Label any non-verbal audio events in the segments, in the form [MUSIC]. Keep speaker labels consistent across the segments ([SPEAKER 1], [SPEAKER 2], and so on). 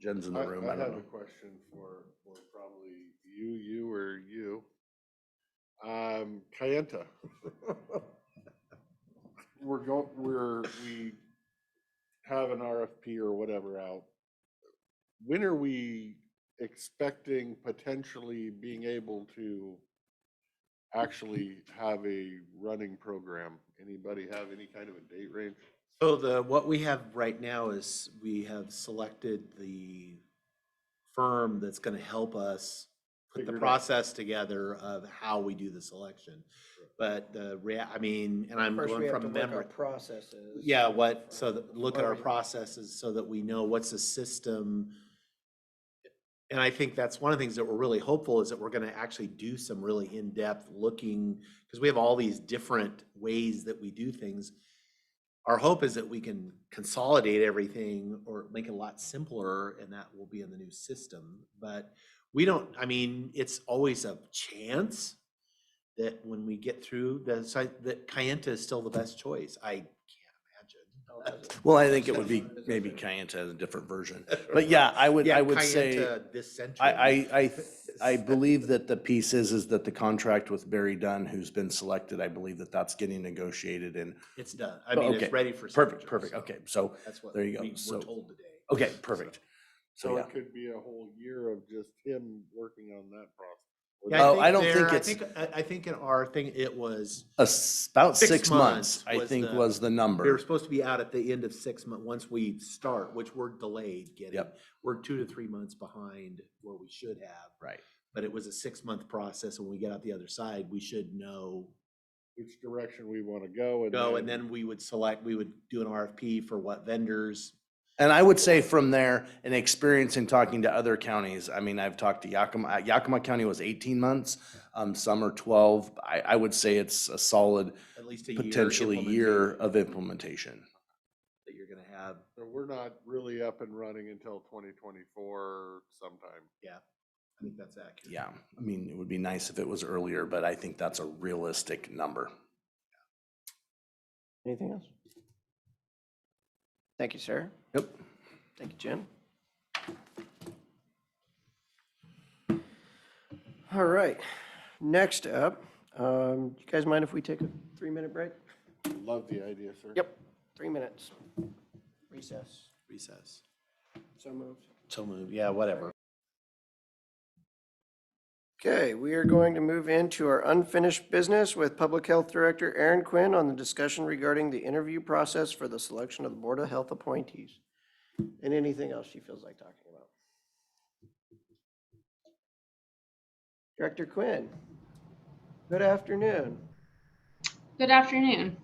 [SPEAKER 1] Jen's in
[SPEAKER 2] I
[SPEAKER 1] the room, I
[SPEAKER 2] I
[SPEAKER 1] don't
[SPEAKER 2] have a
[SPEAKER 1] know.
[SPEAKER 2] question for, for probably you, you or you. Um, Kayenta. [LAUGHS] We're going, we're, we have an RFP or whatever out. When are we expecting potentially being able to actually have a running program? Anybody have any kind of a date range?
[SPEAKER 3] So the, what we have right now is we have selected the firm that's gonna help us put
[SPEAKER 2] Figure
[SPEAKER 3] the
[SPEAKER 2] it out.
[SPEAKER 3] process together of how we do the selection. But the rea, I mean, and I'm
[SPEAKER 4] First, we
[SPEAKER 3] going
[SPEAKER 4] have to
[SPEAKER 3] from
[SPEAKER 4] look
[SPEAKER 3] memory.
[SPEAKER 4] up processes.
[SPEAKER 3] Yeah, what, so that, look at
[SPEAKER 4] Or
[SPEAKER 3] our
[SPEAKER 4] we-
[SPEAKER 3] processes so that we know what's a system. And I think that's one of the things that we're really hopeful is that we're gonna actually do some really in-depth looking, because we have all these different ways that we do things. Our hope is that we can consolidate everything or make it a lot simpler and that will be in the new system. But we don't, I mean, it's always a chance that when we get through the site, that Kayenta is still the best choice. I can't imagine.
[SPEAKER 4] Oh, that's
[SPEAKER 3] [LAUGHS]
[SPEAKER 4] it.
[SPEAKER 1] Well, I think it would be,
[SPEAKER 4] That's-
[SPEAKER 1] maybe Kayenta has a different version. But yeah, I would,
[SPEAKER 3] Yeah,
[SPEAKER 1] I would say,
[SPEAKER 3] Kayenta This century.
[SPEAKER 1] I, I,
[SPEAKER 3] [LAUGHS]
[SPEAKER 1] I, I believe that the piece is, is that the contract with Barry Dunn, who's been selected, I believe that that's getting negotiated and,
[SPEAKER 3] It's done. I
[SPEAKER 1] Oh,
[SPEAKER 3] mean,
[SPEAKER 1] okay.
[SPEAKER 3] it's ready for.
[SPEAKER 1] perfect,
[SPEAKER 3] signature,
[SPEAKER 1] perfect,
[SPEAKER 3] so
[SPEAKER 1] okay, so,
[SPEAKER 3] That's what
[SPEAKER 1] There you
[SPEAKER 3] we
[SPEAKER 1] go. So-
[SPEAKER 3] were told today.
[SPEAKER 1] okay,
[SPEAKER 3] So-
[SPEAKER 1] perfect. So
[SPEAKER 2] So
[SPEAKER 1] yeah,
[SPEAKER 2] it could be a whole year of just him working on that process.
[SPEAKER 3] Yeah,
[SPEAKER 1] Oh, I don't
[SPEAKER 3] there-
[SPEAKER 1] think
[SPEAKER 3] I
[SPEAKER 1] it's-
[SPEAKER 3] I, I think in our thing, it was,
[SPEAKER 1] A s- about
[SPEAKER 3] Six
[SPEAKER 1] six months,
[SPEAKER 3] months
[SPEAKER 1] I
[SPEAKER 3] was
[SPEAKER 1] think
[SPEAKER 3] the-
[SPEAKER 1] was the number.
[SPEAKER 3] we were supposed to be out at the end of six months, once we start, which we're delayed getting.
[SPEAKER 1] Yep.
[SPEAKER 3] We're two to three months behind where we should have,
[SPEAKER 1] Right.
[SPEAKER 3] but it was a six-month process. and When we get out the other side, we should know
[SPEAKER 2] Which direction we want to go and.
[SPEAKER 3] go, and then we would select, we would do an RFP for what vendors.
[SPEAKER 1] And I would say from there, an experience in talking to other counties, I mean, I've talked to Yakima, uh, Yakima County was eighteen months. Um, some are twelve. I, I would say it's a solid,
[SPEAKER 3] At least a year.
[SPEAKER 1] potentially year
[SPEAKER 3] implementation
[SPEAKER 1] of implementation.
[SPEAKER 3] That you're gonna have.
[SPEAKER 2] So we're not really up and running until twenty twenty-four sometime.
[SPEAKER 3] I think that's accurate.
[SPEAKER 1] Yeah, I mean, it would be nice if it was earlier, but I think that's a realistic number.
[SPEAKER 4] Anything else? Thank you, sir.
[SPEAKER 1] Yep.
[SPEAKER 4] Thank you, Jim. All right, next up, um, you guys mind if we take a three-minute break?
[SPEAKER 2] Love the idea, sir.
[SPEAKER 4] Yep, three minutes. Recess.
[SPEAKER 3] Recess.
[SPEAKER 4] So moved.
[SPEAKER 3] So move, yeah, whatever.
[SPEAKER 4] Okay, we are going to move into our unfinished business with Public Health Director Aaron Quinn on the discussion regarding the interview process for the selection of the Board of Health appointees. And anything else she feels like talking about. Director Quinn, good afternoon.
[SPEAKER 5] Good afternoon.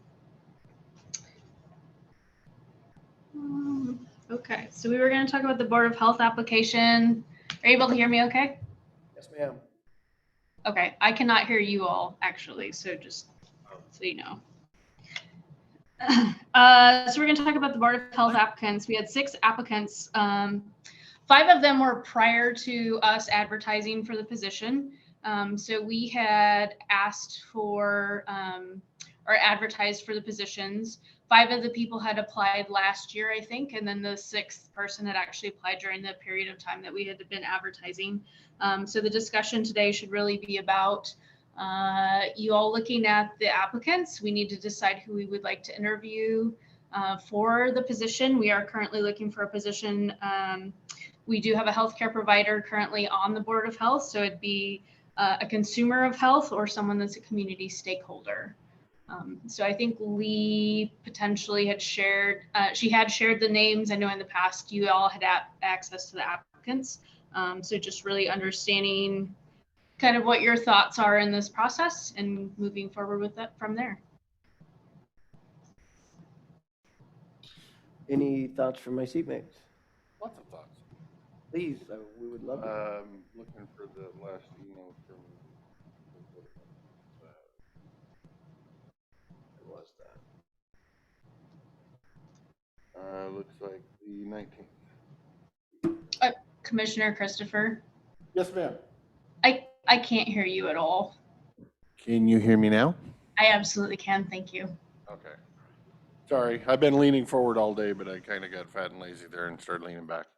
[SPEAKER 5] Um, Okay, so we were going to talk about the Board of Health application. Are you able to hear me okay?
[SPEAKER 4] Yes, ma'am.
[SPEAKER 5] Okay, I cannot hear you all actually, so just so you know. [LAUGHS] Uh, So we're going to talk about the Board of Health applicants. We had six applicants. Um, Five of them were prior to us advertising for the position. Um, So we had asked for um, or advertised for the positions. Five of the people had applied last year, I think, and then the sixth person had actually applied during the period of time that we had been advertising. Um, so the discussion today should really be about uh, you all looking at the applicants. We need to decide who we would like to interview uh, for the position. We are currently looking for a position. Um, we do have a healthcare provider currently on the Board of Health, so it'd be uh, a consumer of health or someone that's a community stakeholder. Um, so I think Lee potentially had shared, uh, she had shared the names. I know in the past you all had a- access to the applicants. Um, so just really understanding kind of what your thoughts are in this process and moving forward with it from there.
[SPEAKER 4] Any thoughts from my seatmates?
[SPEAKER 2] Lots of thoughts.
[SPEAKER 4] Please, uh, we would love to.
[SPEAKER 2] Um, looking for the last email from. uh, Where was that? Uh, looks like the nineteenth.
[SPEAKER 5] Commissioner Christopher,
[SPEAKER 2] Yes, ma'am.
[SPEAKER 5] I, I can't hear you at all.
[SPEAKER 2] Can you hear me now?
[SPEAKER 5] I absolutely can. Thank you.
[SPEAKER 2] Okay. Sorry, I've been leaning forward all day, but I kind of got fat and lazy there and started leaning back.